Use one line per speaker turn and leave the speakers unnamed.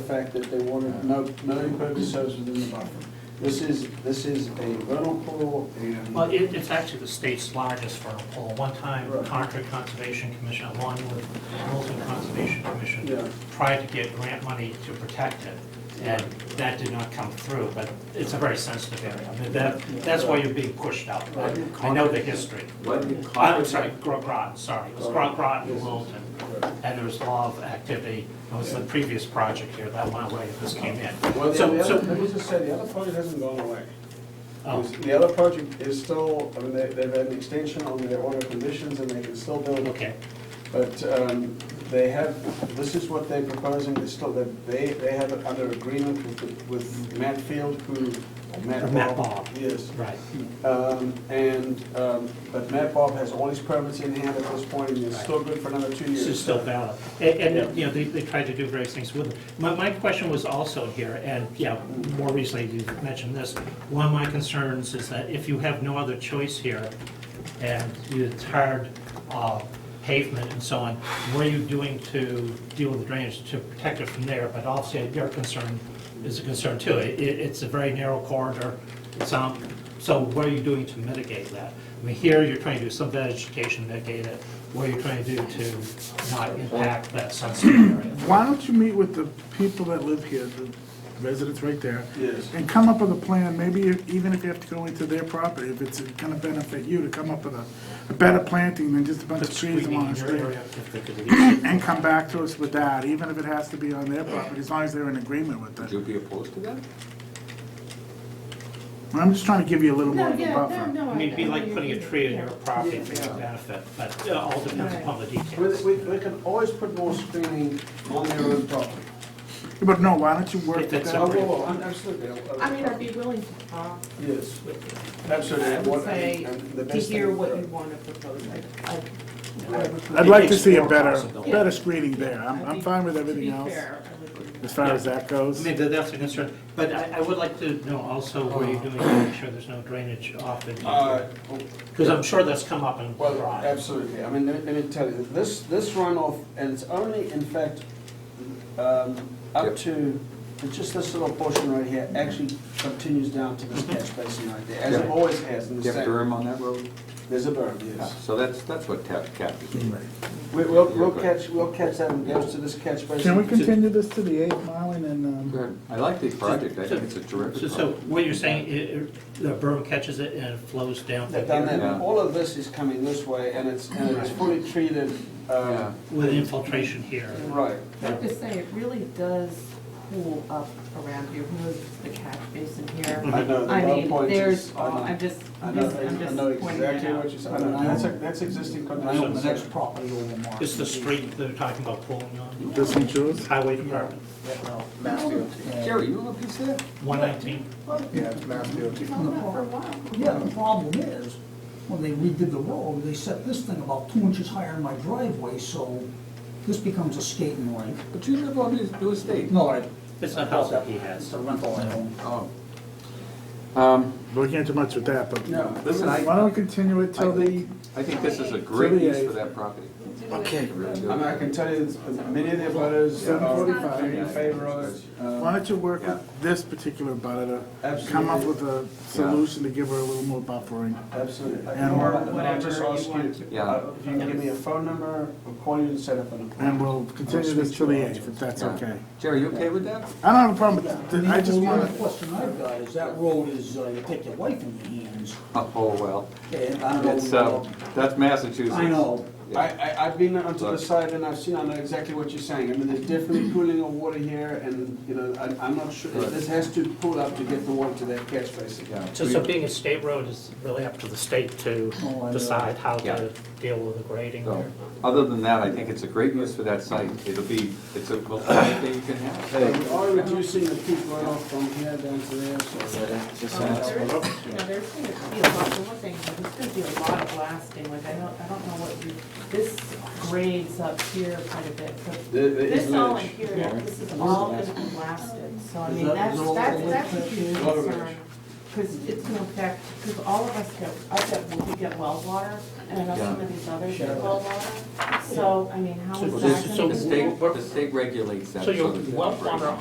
fact that they wanted no, no impervious surface within the buffer. This is, this is a vernal pool and.
Well, Uh, it, it's actually the state's largest vernal pool. One time,
Right.
Concord Conservation Commission, along with Milton Conservation
Yeah.
Commission, tried to get grant money to protect it, and that did not come through, but it's a very sensitive area. I mean, that, that's why you're being pushed out.
Why did
I know the history.
Why did
Uh, I'm
Concord-
sorry, Grog Rotten, sorry. It was Grog Rotten and Milton, and there was a lot of activity. It was the previous project here, that went away, this came in.
Well, the
So-
the
so-
other, let me just say, the other project hasn't gone away.
Oh.
The other project is still, I mean, they, they've had an extension on their order of conditions and they can still build.
Okay.
But, um, they have, this is what they're proposing, they still, they, they have it under agreement with, with Matt Field, who, Matt
Matt
Bob.
Bob.
Yes.
Right.
Um, And, um, but Matt Bob has all his permits in hand at this point, and it's still good for another two
This is
years.
still valid. And, and, you know, they, they tried to do various things with it. My, my question was also here, and, yeah, more recently you mentioned this. One of my concerns is that if you have no other choice here, and you tarred uh, pavement and so on, what are you doing to deal with the drainage to protect it from there? But also, your concern is a concern too. It, it- it's a very narrow corridor, it's, um, so what are you doing to mitigate that? I mean, here, you're trying to do some vegetation to mitigate it, what are you trying to do to not impact that sunset area?
Why don't you meet with the people that live here, the residents right there?
Yes.
And come up with a plan, maybe if- even if you have to go into their property, if it's gonna benefit you to come up with a, a better planting than just a bunch of trees
Screening
along
in
the
your
street.
area, if they could leave.
And come back to us with that, even if it has to be on their property, as long as they're in agreement with
Would
it.
you be opposed to that?
I'm just trying to give you a little more
No,
of a
yeah, no,
buffer.
no.
I mean, it'd be like putting a tree in your property for
Yeah.
your benefit, but it all depends upon the
We,
details.
we we can always put more screening on their own property.
But no, why don't you work
If
with
it's
that?
Oh, whoa, whoa, I'm- Absolutely. I'll-
I mean, I'd be willing to talk,
Yes, absolutely.
I
and
would
what-
say,
and the
to
best
hear
thing-
what you want to propose, I, I.
Right.
I'd like to see a
Explore
better,
possibilities.
better screening there. I'm,
I'd
I'm
be-
fine with everything else,
To be fair, I would agree.
as far as that
I
goes.
mean, that- that's a concern, but I, I would like to know also what you're doing to make sure there's no drainage off in
Uh,
here. Because I'm sure that's come up in
Well,
Rye.
absolutely. I mean, let me let me tell you, this, this runoff, and it's only in fact, um, up
Yep.
to, it's just this little portion right here, actually continues down to this catch basin right there, as it
Yeah.
always has in
Do
the
you have
state.
Durham on that road?
There's a berm, yes.
So that's, that's what tap, cap is doing.
We- We'll, we'll
You're
catch, we'll catch that and goes to this catch basin.
Can we
to-
continue this to the eighth mile and then, um?
Good. I like the project, I think it's a
So,
terrific
so
project.
what you're saying, it- it- the berm catches it and it flows down to
They've done
here
that, and
Yeah.
all of this is coming this way, and it's, and it's fully treated,
Yeah.
um,
with infiltration here?
right.
I have to say, it really does cool up around here, who knows if the catch basin here?
I know, the
I
low
mean,
point
there's,
is.
all- I'm just,
I
I'm
know,
just
I
I'm
know- I
just
know
pointing it
exactly what
out.
you're saying. I know, that's, a- that's existing
on the next
conditions.
property over more.
It's the street they're talking about pulling on,
This ain't yours?
highway department,
Jerry, you look at that?
119.
Yeah, it's Mass DOT.
Held up for a while.
Yeah, the problem is, when they redid the road, they set this thing about two inches higher in my driveway, so this becomes a skating rink.
But you live on this new estate.
No, I.
It's a house that he has.
It's a rental I own.
Oh. Um,
We can't do much with that, but
No.
Listen, I-
why don't we continue it till the,
I think this is a great
the
use for
eighth.
that property.
Okay.
I really do.
I mean, I can tell you, that many of the voters are
7:45.
are in favor of it.
why
Uh,
don't you work
Yeah.
with this particular butter to come up
Absolutely.
with a solution to give her a little more buffering?
Absolutely.
And
Or
whatever
I'll just
you
ask
want to-
Yeah.
uh, If you can give me a phone number, I'll call you and set up an
And
appointment.
we'll continue this till the eighth, if that's
Yeah.
okay.
Jerry, you okay with that?
I don't have a problem with
And
it, I just
the only
wanna,
other question I've got is that road is, uh, you take your life in your hands,
Oh, oh, well,
and I don't
it's,
know.
uh, that's Massachusetts.
I know,
Yeah.
I, I, I've been onto the site and I've seen, I know exactly what you're saying. I mean, there's definitely pooling of water here and, you know, I, I'm not sure,
Right.
this has to pool up to get the water to that catch basin.
Yeah.
So, so being a state road is really up to the state to
Oh, I know.
decide how
Yeah.
to deal with the grading
So,
there.
Other than that, I think it's a great use for that site. It'll be, it's a, well, thing you can have.
So We are reducing the peak runoff from here down to there, so.
Um, There is, you know, there's going to be a lot, the one thing, there's going to be a lot of blasting, like, I don't, I don't know what you, this grades up here quite a bit, but
There- there is
this all in
ledge.
here, this is all going to be blasted, so I mean,
that-
that's,
is all
that's,
ledge
that's a
back
huge
there? Lot of
concern.
ledge.
Because it's going to affect, because all of us get, I get, we get well water, and I know some
Yeah.
of these others
Sure.
get well water, so, I mean, how
So
is
Well,
that
this-
going
so
to?
The state, the state regulates that.
So your
sort of
well water
operation.